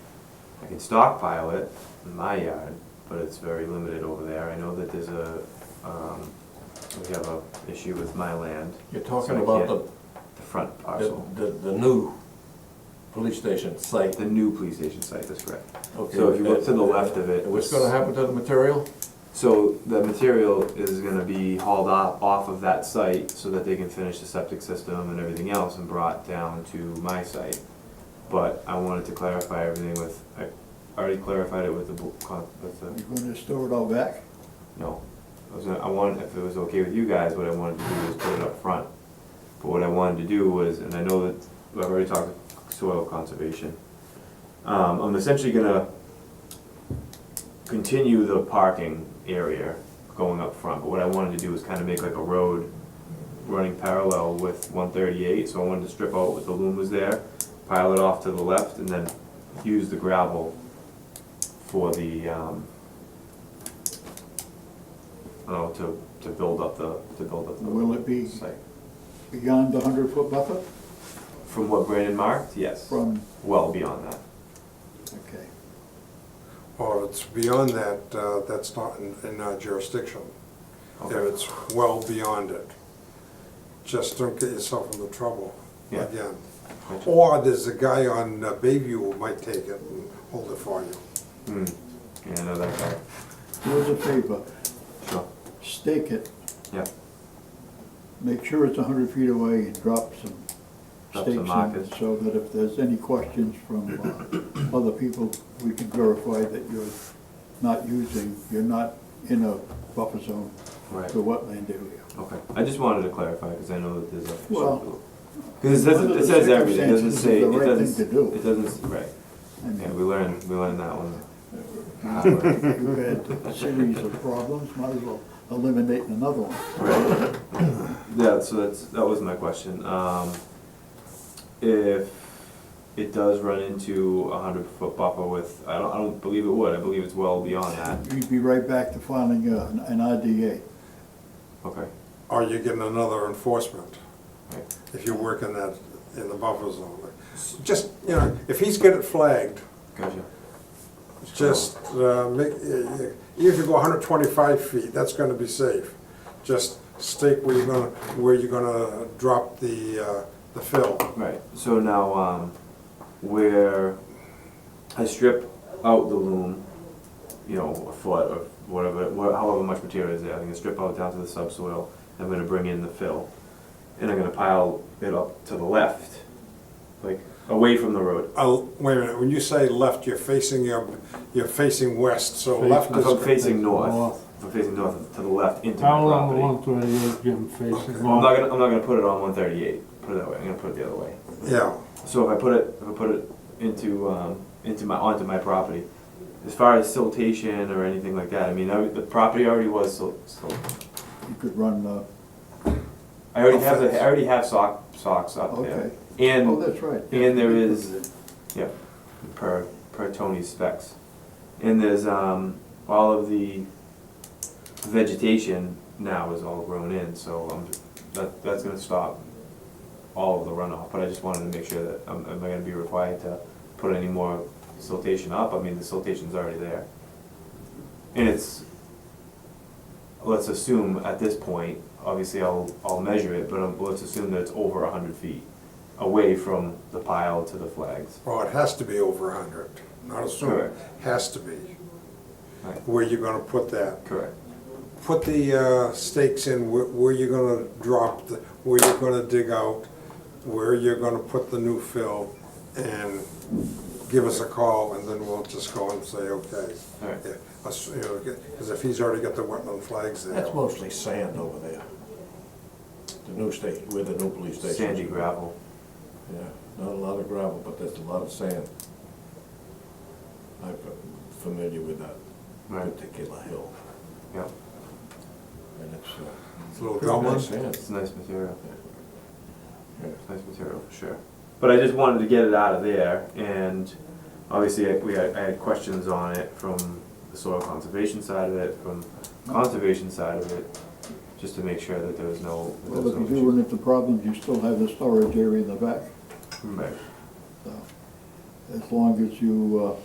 I can stockpile it in my yard, but it's very limited over there. I know that there's a, um, we have a issue with my land, You're So talking I about can't- the, the front the, parcel. the, the new police station site. The new police station site, that's correct. Okay, So if you look to the that- left of it. And what's gonna happen to the material? So the material is gonna be hauled off, off of that site so that they can finish the septic system and everything else and brought down to my site. But I wanted to clarify everything with, I already clarified it with the, bo- con- with the, You're gonna store it all back? no. I was gonna, I wanted, if it was okay with you guys, what I wanted to do was put it up front. But what I wanted to do was, and I know that, I've already talked soil conservation. Um, I'm essentially gonna continue the parking area going up front, but what I wanted to do was kind of make like a road running parallel with one thirty-eight, so I wanted to strip out what the loom was there, pile it off to the left, and then use the gravel for the, um, I don't know, oh, to, to build up the, to build up Will it the be site. beyond the hundred foot buffer From what Brandon marked, yes, from, well beyond that. okay. Well, it's beyond that, uh, that's not in in our jurisdiction. If Okay. it's well beyond it, just don't get yourself into trouble Yeah. again. Gotcha. Or there's a guy on uh, Bayview who might take it and hold it for you. Hmm, yeah, I know that guy, Do us a favor, sure, stake it, yeah. make sure it's hundred feet away and drop some Drop some stakes in markers. it so that if there's any questions from uh, other people, we can verify that you're not using, you're not in a buffer zone Right. to wetland area. Okay, I just wanted to clarify, because I know that there's a. Well- Because it says, Under it the says everything, it doesn't circumstances, say, it's it the right doesn't, thing to do. it doesn't, right, I mean, yeah, we learned, we learned that one. If You've had a series of problems, might as well eliminate another one. Right. Yeah, so that's, that was my question, um, if it does run into a hundred foot buffer with, I don't, I don't believe it would, I believe it's well beyond that, You'd be right back to filing uh, an an IDA. okay, Or you get another enforcement right, if you work in that, in the buffer zone. Just, you know, if he's got it flagged, gotcha, Just, uh, make, uh, uh, if you go hundred twenty-five feet, that's gonna be safe. Just stake where you're gonna, where you're gonna drop the, uh, the fill. right, so now, um, where I strip out the loom, you know, a foot or whatever, wha- however much material is there, I'm gonna strip out down to the subsoil, I'm gonna bring in the fill, and I'm gonna pile it up to the left, like, away from the road. Uh, wait a minute, when you say left, you're facing your, you're facing west, so left If I'm is, facing north, North. if I'm facing north, to the left into my How long the property. one thirty-eight Jim facing? Well, I'm not gonna, I'm not gonna put it on one thirty-eight, put it that way, I'm gonna put it the other way. yeah, So if I put it, if I put it into, um, into my, onto my property, as far as siltation or anything like that, I mean, I, the property already was sil- sil- You could run, uh, I already have, the- I already have sock, socks up there. Oh, okay. Oh, And, that's right. and there is, yeah, per, per Tony's specs. And there's, um, all of the vegetation now is all grown in, so um that, that's gonna stop all of the runoff, but I just wanted to make sure that, am, am I gonna be required to put any more siltation up? I mean, the siltation's already there. And it's, let's assume at this point, obviously I'll, I'll measure it, but um, let's assume that it's over a hundred feet away from the pile to the flags. oh, it has to be over hundred, not assuming, Correct. has to be. Right. Where you're gonna put that. Correct. put the uh, stakes in where- where you're gonna drop, the- where you're gonna dig out, where you're gonna put the new fill, and give us a call, and then we'll just go and say, okay. All right. Because if he's already got the wetland flags there. That's mostly sand over there. The new state, where the new police station. is. Sandy gravel. Yeah, not a lot of gravel, but there's a lot of sand. I'm familiar with that Right. particular hill, Yeah, and it's, uh. It's a little pretty nice Belmont. Sand, it's nice material. yeah. It's nice material for sure. But I just wanted to get it out of there, and obviously I, we had, I had questions on it from the soil conservation side of it, from conservation side of it, just to make sure that there was no. that there Well, was if you no do run into problems, you still have the storage area in the back, issues. Right. so, as long as you, uh,